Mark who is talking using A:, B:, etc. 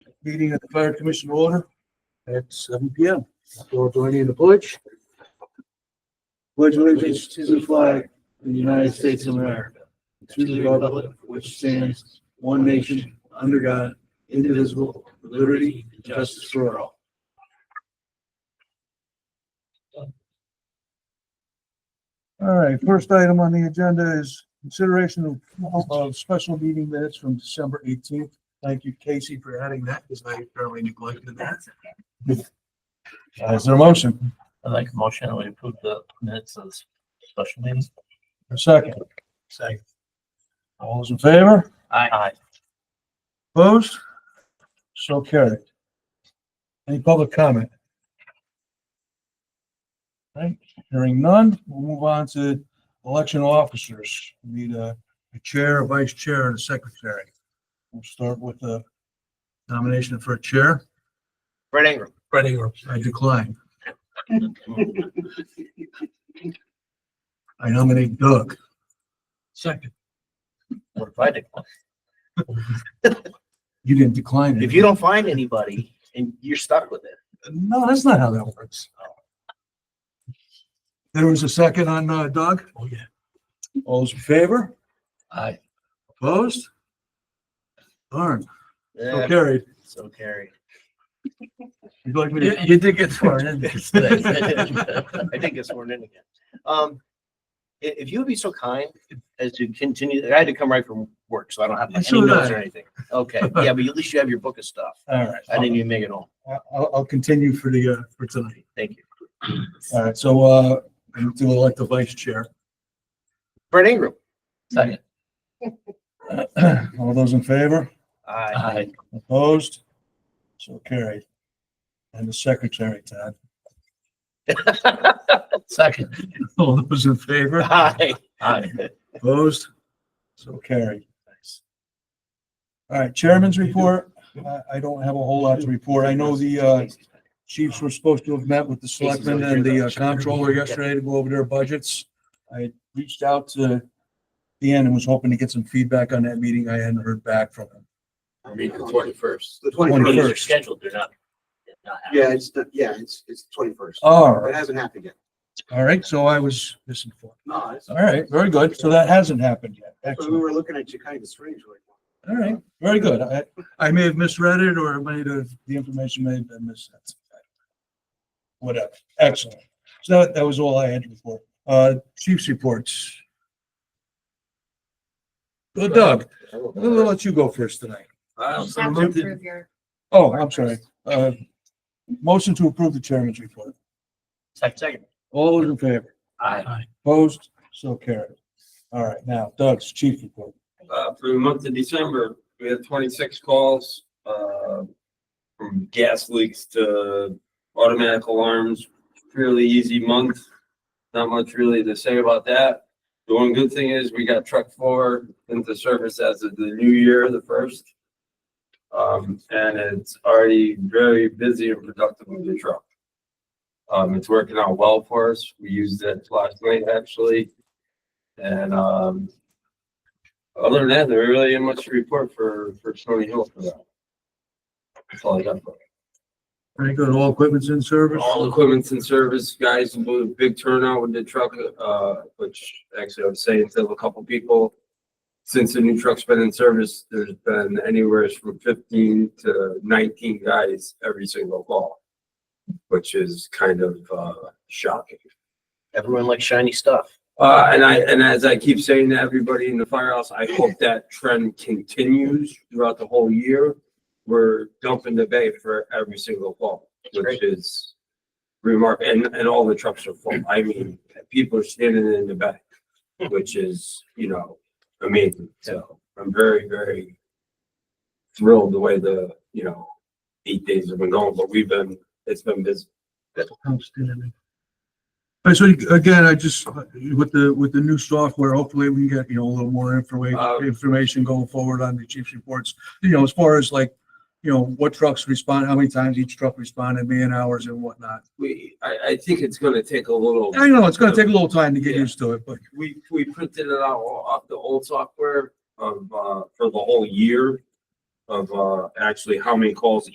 A: meeting of the fire commission to order at seven P M. We'll join in the pledge. Pledge allegiance to the flag of the United States of America, to the republic which stands one nation, under God, indivisible, with liberty and justice for all. All right, first item on the agenda is consideration of, of special meeting minutes from December eighteenth. Thank you, Casey, for adding that because I apparently neglected that. Uh, Is there a motion?
B: I'd like a motion that we approve the minutes of this special meetings.
A: A second? Second. All those in favor?
B: Aye. Aye.
A: Opposed? So carried. Any public comment? Right, hearing none, we'll move on to election officers. We Need a, a chair, a vice chair, and a secretary. We'll start with the nomination for a chair.
C: Brett Ingram.
A: Brett Ingram. I decline. I nominate Doug. Second.
B: What if I decline?
A: You didn't decline it.
C: If you don't find anybody and you're stuck with it,
A: No, that's not how that works. There was a second on uh, Doug? Oh, yeah. All those in favor?
B: Aye.
A: Opposed? Darn, so
C: eh,
A: carried.
C: so carry.
A: You'd like me
B: You,
A: to?
B: you did get sworn in. today.
C: I did get sworn in again. Um, i- if, you would be so kind as to continue, I had to come right from work, so I don't have
A: So
C: any
A: did
C: notes or
A: I.
C: anything. Okay, yeah, but at least you have your book of stuff.
A: All right,
C: I didn't even make it home.
A: I'll- I'll, I'll continue for the, uh, for tonight.
C: Thank you.
A: All right, so, uh, I need to elect the vice chair.
C: Brett Ingram.
B: Second.
A: All those in favor?
C: Aye.
B: Aye.
A: Opposed? So carried. And the secretary, Todd.
B: Second.
A: All those in favor?
C: Aye.
B: Aye.
A: Opposed? So carried. All right, Chairman's report. I, I don't have a whole lot to report. I know the, uh, chiefs were supposed to have met with the selectmen and the uh, comptroller yesterday to go over their budgets. I reached out to Dan and was hoping to get some feedback on that meeting. I hadn't heard back from him.
D: I mean, the twenty-first.
E: The
B: Meetings
E: twenty-first,
B: are
A: 21st.
B: scheduled, they're not. they're not happening.
E: yeah, it's, the- yeah, it's, it's twenty-first.
A: All
E: It
A: right,
E: hasn't happened yet.
A: all right, so I was misinformed.
E: No, it's.
A: All right, very good. So that hasn't happened yet.
E: So we
A: Excellent.
E: were looking at you kind of strange, like.
A: All right, very good. I, I may have misread it or it may have, the information may have been missed. Whatever, excellent. So that, that was all I had to report. Uh, chief's reports. Well, Doug, I'm gonna let you go first tonight.
F: Have to approve your,
A: Oh, I'm sorry. Uh, motion to approve the chairman's report.
B: Second.
A: All those in favor?
B: Aye.
A: Opposed? So carried. All right, now Doug's chief report.
G: Uh, for the month of December, we had twenty-six calls, uh, from gas leaks to automatic alarms. Fairly easy month. Not much really to say about that. The one good thing is we got truck four into service as of the new year, the first. Um, and it's already very busy and productive with the truck. Um, it's working out well for us. We used it last night actually. And, um, other than that, there really ain't much to report for, for Stony Hill for that. That's all I got for
A: Very good. All equipment's in
G: it.
A: service?
G: All equipment's in service, guys, with a big turnout with the truck, uh, which actually I would say to a couple people. Since the new truck's been in service, there's been anywhere from fifteen to nineteen guys every single call. Which is kind of, uh, shocking.
C: Everyone likes shiny stuff.
G: Uh, and I, and as I keep saying to everybody in the firehouse, I hope that trend continues throughout the whole year. We're dumping the bay for every single fall, which
C: Great.
G: is remark, and, and all the trucks are full. I mean, people are standing in the bay, which is, you know, amazing. So I'm very, very thrilled the way the, you know, eight days have been going, but we've been, it's been busy.
A: Outstanding. And so again, I just, with the, with the new software, hopefully we can get, you know, a little more
G: Uh,
A: information, information going forward on the chief's reports. You know, as far as like, you know, what trucks respond, how many times each truck responded, man hours and whatnot.
G: We, I, I think it's gonna take a little.
A: I know it's gonna take a little time to get
G: Yeah.
A: used to it, but
G: we, we printed it out off the old software of, uh, for the whole year of, uh, actually how many calls